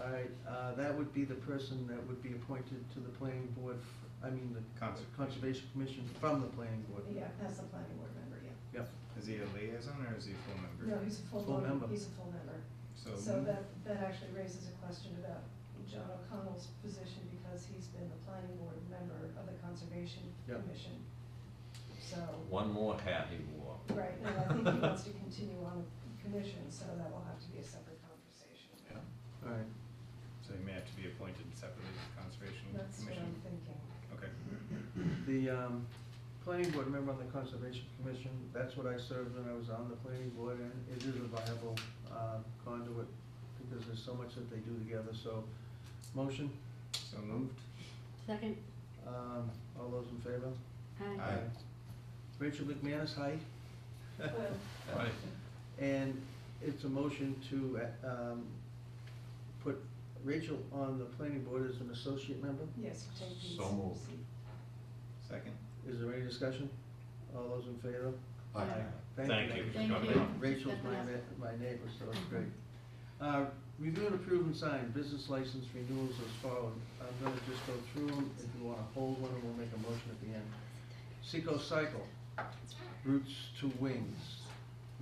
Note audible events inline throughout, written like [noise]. All right, uh, that would be the person that would be appointed to the planning board, f- I mean, the Conservation. Conservation Commission from the planning board. Yeah, that's the planning board member, yeah. Yep, Is he a liaison or is he a full member? No, he's a full, Full member. member. he's a full member. So that, that actually raises a question about John O'Connell's position because he's been the planning board member of the Conservation Yep. Commission. So, One more hat he wore. right, and I think he [laughs] wants to continue on the commission, so that will have to be a separate conversation. Yeah, all right. so he may have to be appointed separately to the Conservation That's what I'm Commission? thinking. Okay, The um, planning board member on the Conservation Commission, that's what I served when I was on the planning board, and it is a viable uh, conduit because there's so much that they do together, so, motion, so moved. Second, um, all those in favor? aye. Aye. Rachel McManus, aye. [laughs] Well, Aye. And it's a motion to uh, um, put Rachel on the planning board as an associate member. Yes, take these. So moved. Second? Is there any discussion? All those in favor? Aye. Thank you. Thank Okay. you. Rachel's my, ne- my neighbor, so it's great. Uh, Review and approve and sign business license renewals as follows. I'm gonna just go through them. If you wanna hold one, we'll make a motion at the end. Seco Cycle, Roots to Wings,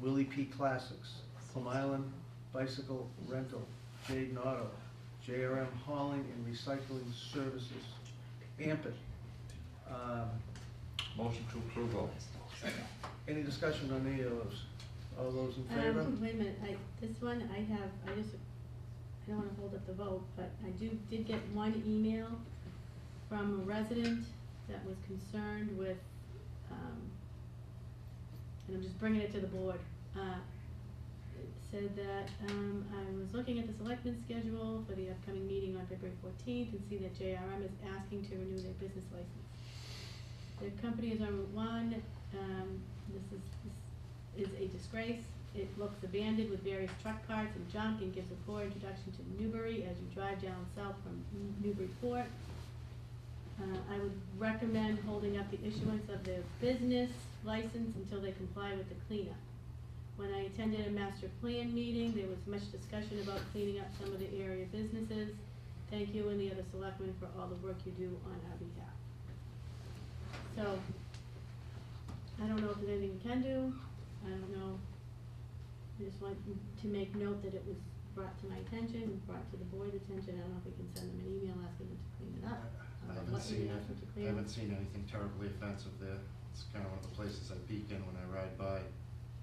Willie P Classics, Plum Island Bicycle Rental, Jade Auto, JRM Hauling and Recycling Services, Ampet. Um, Motion to approve. all. Any discussion on any of those? All those in favor? Um, wait a minute, I, this one, I have, I just, I don't wanna hold up the vote, but I do, did get one email from a resident that was concerned with, um, and I'm just bringing it to the board, uh, it said that, um, I was looking at the selectmen's schedule for the upcoming meeting on February fourteenth and see that JRM is asking to renew their business license. Their company is on Route One, um, this is, this is a disgrace. It looks abandoned with various truck parts and junk and gives a poor introduction to Newbury as you drive down south from Newburyport. Uh, I would recommend holding up the issuance of their business license until they comply with the cleanup. When I attended a master plan meeting, there was much discussion about cleaning up some of the area businesses. Thank you and the other selectmen for all the work you do on our behalf. So, I don't know if there's anything we can do, I don't know. I just want to make note that it was brought to my attention, and brought to the board's attention, I don't know if we can send them an email asking them to clean it up. Um, I or haven't what we seen, ask them to I clean up. haven't seen anything terribly offensive there. It's kind of one of the places I peek in when I ride by.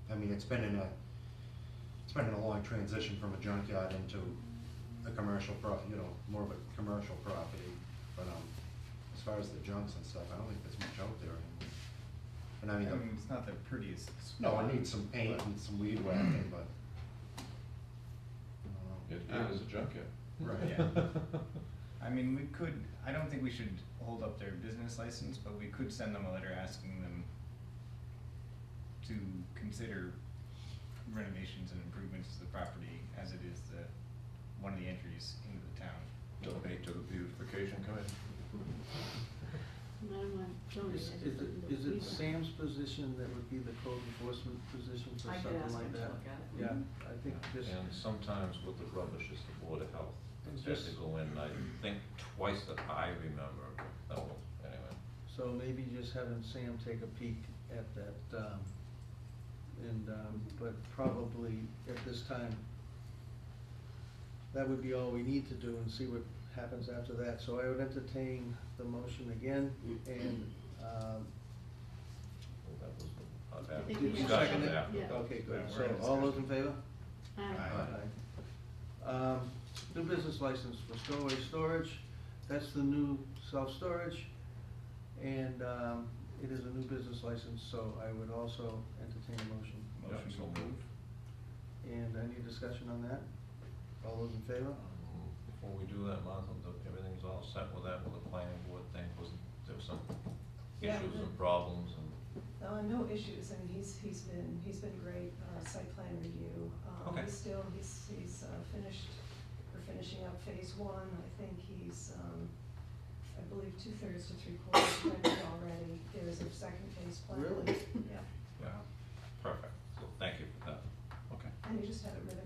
I mean, it's been in a, it's been in a long transition from a junkyard into a commercial prop, you know, more of a commercial property. But, um, as far as the junks and stuff, I don't think there's much out there anymore. And I I mean, mean, the- it's not the prettiest no, spot, it needs some paint but- and some weed whacking, but. I It don't know. it is a junkyard. Right, yeah. I mean, we could, I don't think we should hold up their business license, but we could send them a letter asking them to consider renovations and improvements to the property as it is the, one of the entries into the town. [laughs] Donate to the beautification committee. I don't want to donate, Is, I is just want them it, to is clean it up. Sam's position that would be the code enforcement position for I could something ask like him to that? look at it. Mhm. Yeah, I think this, And sometimes with the rubbish is the Board of Health. And They have just- to go in, I think twice that I remember, oh, anyway. so maybe just having Sam take a peek at that, um, and, um, but probably at this time, that would be all we need to do and see what happens after that. So I would entertain the motion again, and, um, Well, that was the- uh, I that think did we you have- second it? after. Yeah. Okay, good, Yeah, we're so in all those discussion. in favor? Aye. Aye. Um, New business license for stowaway storage, that's the new self-storage, and um, it is a new business license, so I would also entertain a motion. Motion Yeah, so to approve. moved. And any discussion on that? All those in favor? Um, Before we do that, Martha, the- everything's all set with that, with the planning board thing, wasn't, there were some Yeah. issues and problems and. Uh, no issues, I mean, he's, he's been, he's been great, uh, site plan review. Um, Okay. He's still, he's, he's uh, finished, we're finishing up phase one, I think he's, um, I believe two-thirds to three-quarters rented already, there's a second phase plan. Really? Yeah, Perfect, so thank you for that. Okay. and he just had it ribbon